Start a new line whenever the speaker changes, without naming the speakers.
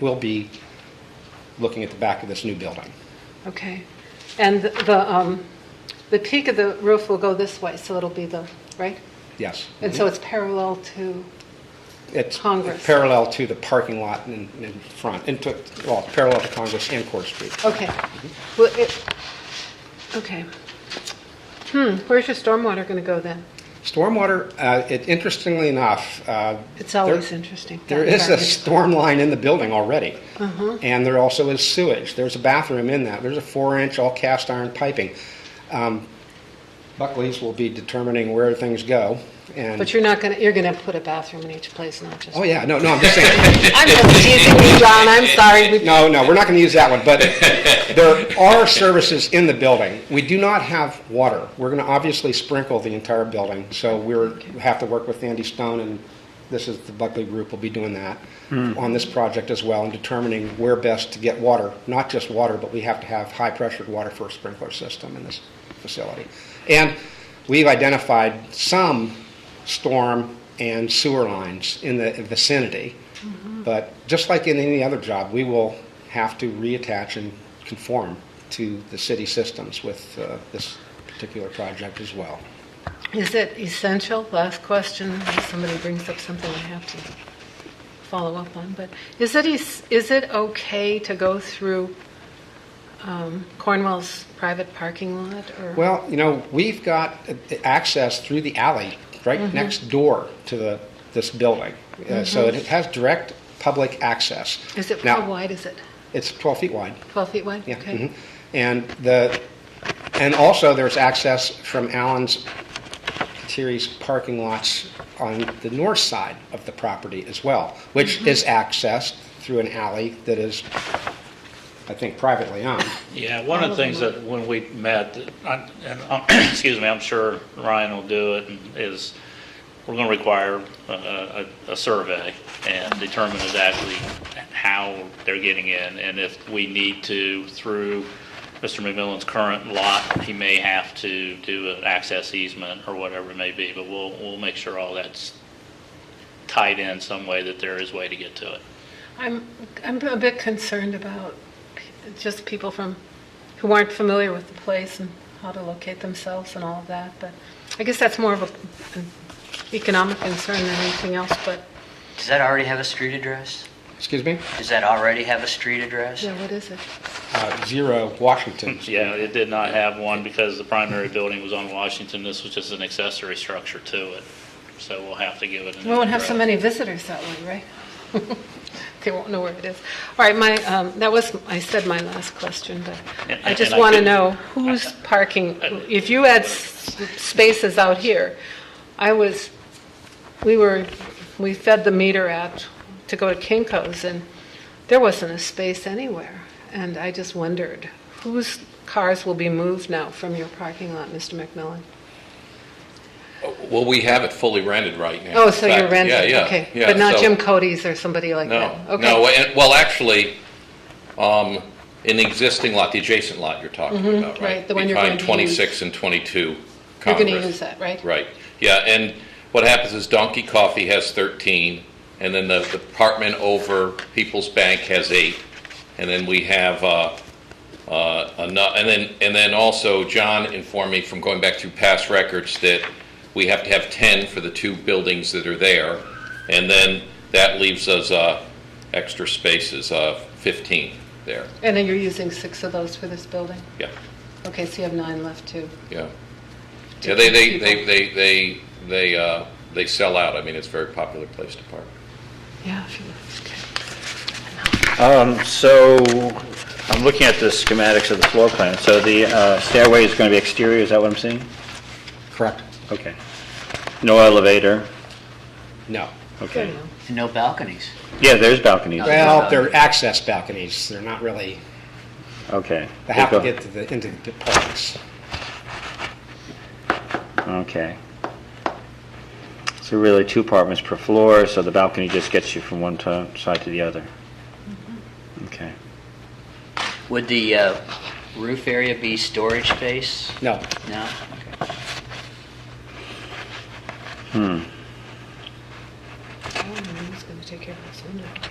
we'll be looking at the back of this new building.
Okay. And the, um, the peak of the roof will go this way, so it'll be the, right?
Yes.
And so it's parallel to,
It's
Congress.
parallel to the parking lot in, in front, and to, well, parallel to Congress and Court Street.
okay.
Mhm.
Well, it, okay. Hmm, where's your stormwater going to go then?
Stormwater, uh, it- interestingly enough, uh,
It's always
There-
interesting.
there is a
Sorry.
storm line in the building already.
Uh-huh.
And there also is sewage. There's a bathroom in that. There's a four-inch all cast iron piping. Um, Buckley's will be determining where things go and.
But you're not going to, you're going to put a bathroom in each place, not just.
Oh, yeah, no, no, I'm just saying.
I'm just teasing you, John, I'm sorry. We-
No, no, we're not going to use that one, but there are services in the building. We do not have water. We're going to obviously sprinkle the entire building, so we're, we have to work with Andy Stone, and this is, the Buckley Group will be doing that on this project as well, and determining where best to get water, not just water, but we have to have high-pressured water for a sprinkler system in this facility. And we've identified some storm and sewer lines in the vicinity.
Mm-hmm.
But just like in any other job, we will have to reattach and conform to the city systems with uh, this particular project as well.
Is it essential, last question, unless somebody brings up something I have to follow up on, but is it, es- is it okay to go through um, Cornwall's private parking lot? or
Well, you know, we've got uh, access through the alley right
Mm-hmm.
next door to the, this building. Uh, So it has direct public access.
Mm-hmm. Is it,
Now,
how wide is it?
It's 12 feet wide.
12 feet wide?
Yeah.
Okay.
mhm. And the, and also there's access from Allen's, Terry's parking lots on the north side of the property as well, which is accessed through an alley that is, I think, privately owned.
Yeah, one of the things that when we met, I- and, um, excuse me, I'm sure Ryan will do it, and is we're going to require uh, a, a survey and determine exactly how they're getting in, and if we need to, through Mr. McMillan's current lot, he may have to do an access easement or whatever it may be, but we'll, we'll make sure all that's tied in some way, that there is way to get to it.
I'm, I'm a bit concerned about p- just people from, who aren't familiar with the place and how to locate themselves and all of that, but I guess that's more of a- an economic concern than anything else, but,
Does that already have a street address?
Excuse me?
Does that already have a street address?
yeah, what is it?
Uh, Zero Washington.
Yeah, it did not have one because the primary building was on Washington. This was just an accessory structure to it. So we'll have to give it a
We
new
won't have so
address.
many visitors that way, right? They won't know where it is. All right, my, um, that was, I said my last question, but
And-
I just
and I
want to
could-
know who's parking, if you had s- spaces out here, I was, we were, we fed the meter at, to go to Kinko's, and there wasn't a space anywhere, and I just wondered, whose cars will be moved now from your parking lot, Mr. McMillan?
Well, we have it fully rented right now.
Oh,
In
so you're
fact,
renting?
Yeah, yeah.
Okay,
yeah,
but not
so-
Jim Cody's or somebody like that?
No,
Okay.
no, and- well, actually, um, in the existing lot, the adjacent lot you're talking about, right?
Mm-hmm. right, the one you're going
Behind
to
26 and 22
You're
Congress.
going to use that, right?
Right, yeah, and what happens is Donkey Coffee has 13, and then the the apartment over People's Bank has eight, and then we have, uh, uh, ano- and then, and then also John informed me from going back through past records that we have to have 10 for the two buildings that are there, and then that leaves us uh, extra spaces, uh, 15 there,
And then you're using six of those for this building?
yeah,
Okay, so you have nine left, too.
yeah. Yeah, they, they,
keep
they,
people.
they, they, they uh, they sell out, I mean, it's a very popular place to park.
Yeah, if you, okay.
Um, So, I'm looking at the schematics of the floor plan. So the uh, stairway is going to be exterior, is that what I'm seeing?
Correct?
Okay. No elevator,
No.
okay.
Oh,
And no balconies?
Yeah, there's balconies,
Well, they're access balconies. They're not really,
okay.
they have to get to the, into the parks.
Okay. So really, two apartments per floor, so the balcony just gets you from one to- side to the other.
Mm-hmm.
Okay.
Would the uh, roof area be storage space?
No.
No? Okay.
I don't know who's going to take care of this window.